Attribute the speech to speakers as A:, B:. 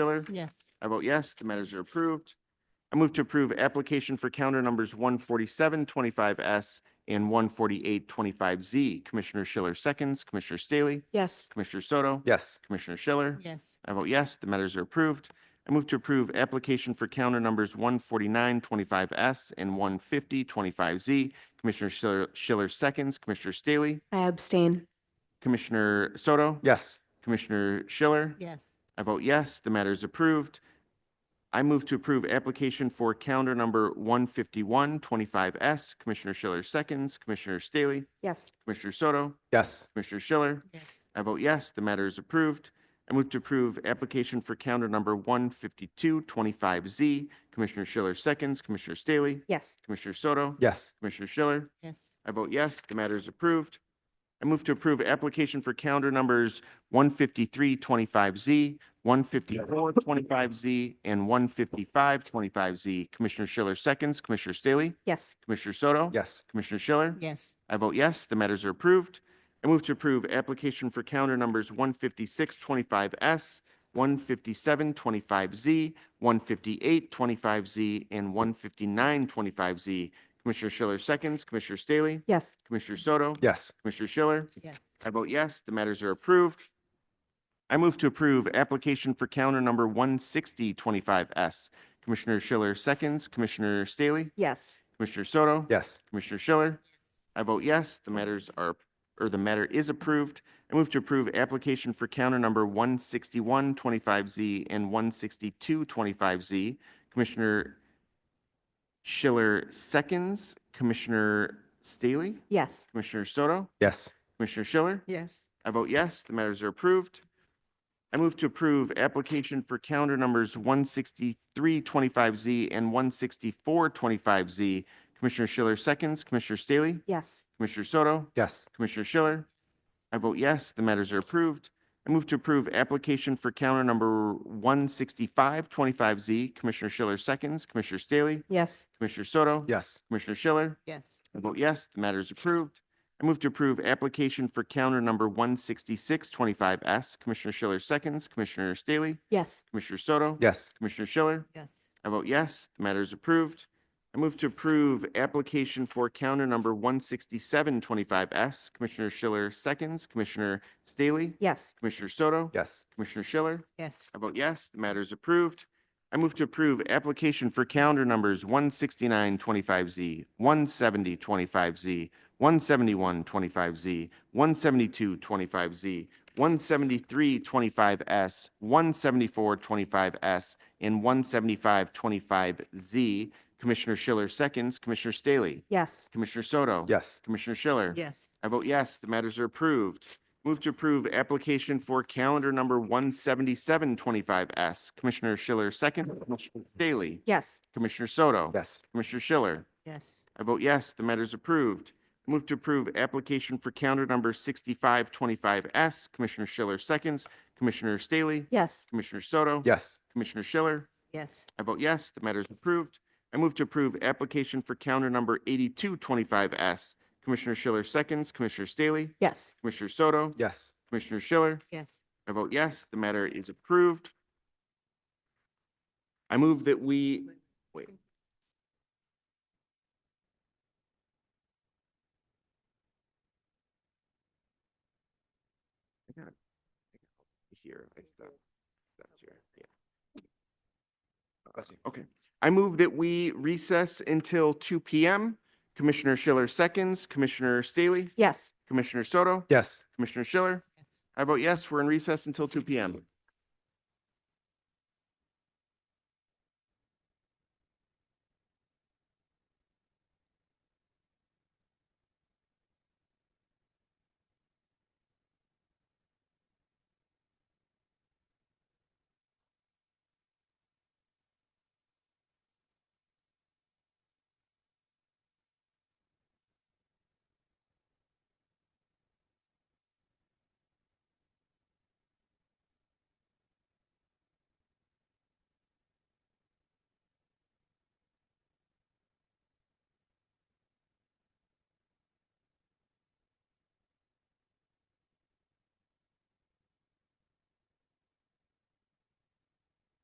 A: Miller?
B: Yes.
A: I vote yes, the matters are approved. I move to approve application for counter numbers one forty-seven twenty-five S and one forty-eight twenty-five Z. Commissioner Schiller seconds, Commissioner Staley,
C: Yes.
A: Commissioner Soto.
D: Yes.
A: Commissioner Schiller.
B: Yes.
A: I vote yes, the matters are approved. I move to approve application for counter numbers one forty-nine twenty-five S and one fifty twenty-five Z. Commissioner Schiller, Schiller seconds, Commissioner Staley,
C: I abstain.
A: Commissioner Soto.
D: Yes.
A: Commissioner Schiller.
B: Yes.
A: I vote yes, the matter is approved. I move to approve application for calendar number 15125S. Commissioner Schiller seconds, Commissioner Staley,
C: Yes.
A: Commissioner Soto,
D: Yes.
A: Commissioner Schiller.
B: Yes.
A: I vote yes, the matter is approved. I move to approve application for calendar number 15225Z. Commissioner Schiller seconds, Commissioner Staley,
C: Yes.
A: Commissioner Soto,
D: Yes.
A: Commissioner Schiller.
B: Yes.
A: I vote yes, the matter is approved. I move to approve application for calendar numbers one fifty-three twenty-five Z, one fifty-four twenty-five Z, and one fifty-five twenty-five Z. Commissioner Schiller seconds, Commissioner Staley,
C: Yes.
A: Commissioner Soto.
D: Yes.
A: Commissioner Schiller.
B: Yes.
A: I vote yes, the matters are approved. I move to approve application for calendar numbers one fifty-six twenty-five S, one fifty-seven twenty-five Z, one fifty-eight twenty-five Z, and one fifty-nine twenty-five Z. Commissioner Schiller seconds, Commissioner Staley,
C: Yes.
A: Commissioner Soto.
D: Yes.
A: Commissioner Schiller.
B: Yes.
A: I vote yes, the matters are approved. I move to approve application for counter number one sixty twenty-five S. Commissioner Schiller seconds, Commissioner Staley,
C: Yes.
A: Commissioner Soto.
D: Yes.
A: Commissioner Schiller. I vote yes, the matters are, or the matter is approved. I move to approve application for counter number one sixty-one twenty-five Z and one sixty-two twenty-five Z. Commissioner Schiller seconds, Commissioner Staley,
C: Yes.
A: Commissioner Soto,
D: Yes.
A: Commissioner Schiller.
B: Yes.
A: I vote yes, the matters are approved. I move to approve application for calendar numbers one sixty-three twenty-five Z and one sixty-four twenty-five Z. Commissioner Schiller seconds, Commissioner Staley,
C: Yes.
A: Commissioner Soto,
D: Yes.
A: Commissioner Schiller. I vote yes, the matters are approved. I move to approve application for calendar number one sixty-five twenty-five Z. Commissioner Schiller seconds, Commissioner Staley,
C: Yes.
A: Commissioner Soto,
D: Yes.
A: Commissioner Schiller.
B: Yes.
A: I vote yes, the matter is approved. I move to approve application for counter number one sixty-six twenty-five S. Commissioner Schiller seconds, Commissioner Staley,
C: Yes.
A: Commissioner Soto.
D: Yes.
A: Commissioner Schiller.
B: Yes.
A: I vote yes, the matter is approved. I move to approve application for counter number one sixty-seven twenty-five S. Commissioner Schiller seconds, Commissioner Staley,
C: Yes.
A: Commissioner Soto.
D: Yes.
A: Commissioner Schiller.
B: Yes.
A: I vote yes, the matter is approved. I move to approve application for calendar numbers one sixty-nine twenty-five Z, one seventy twenty-five Z, one seventy-one twenty-five Z, one seventy-two twenty-five Z, one seventy-three twenty-five S, one seventy-four twenty-five S, and one seventy-five twenty-five Z. Commissioner Schiller seconds, Commissioner Staley,
C: Yes.
A: Commissioner Soto.
D: Yes.
A: Commissioner Schiller.
B: Yes.
A: I vote yes, the matters are approved. Move to approve application for calendar number one seventy-seven twenty-five S. Commissioner Schiller second, Commissioner Staley,
C: Yes.
A: Commissioner Soto.
D: Yes.
A: Commissioner Schiller.
B: Yes.
A: I vote yes, the matter is approved. Move to approve application for calendar number sixty-five twenty-five S. Commissioner Schiller seconds, Commissioner Staley,
C: Yes.
A: Commissioner Soto.
D: Yes.
A: Commissioner Schiller.
B: Yes.
A: I vote yes, the matter is approved. I move to approve application for calendar number eighty-two twenty-five S. Commissioner Schiller seconds, Commissioner Staley,
C: Yes.
A: Commissioner Soto.
D: Yes.
A: Commissioner Schiller.
B: Yes.
A: I vote yes, the matter is approved. I move that we, wait. I got it. Here, I stopped, stopped here, yeah.
D: Bless you.
A: Okay, I move that we recess until two P M. Commissioner Schiller seconds, Commissioner Staley,
C: Yes.
A: Commissioner Soto,
D: Yes.
A: Commissioner Schiller.
B: Yes.
A: I vote yes, we're in recess until two P M.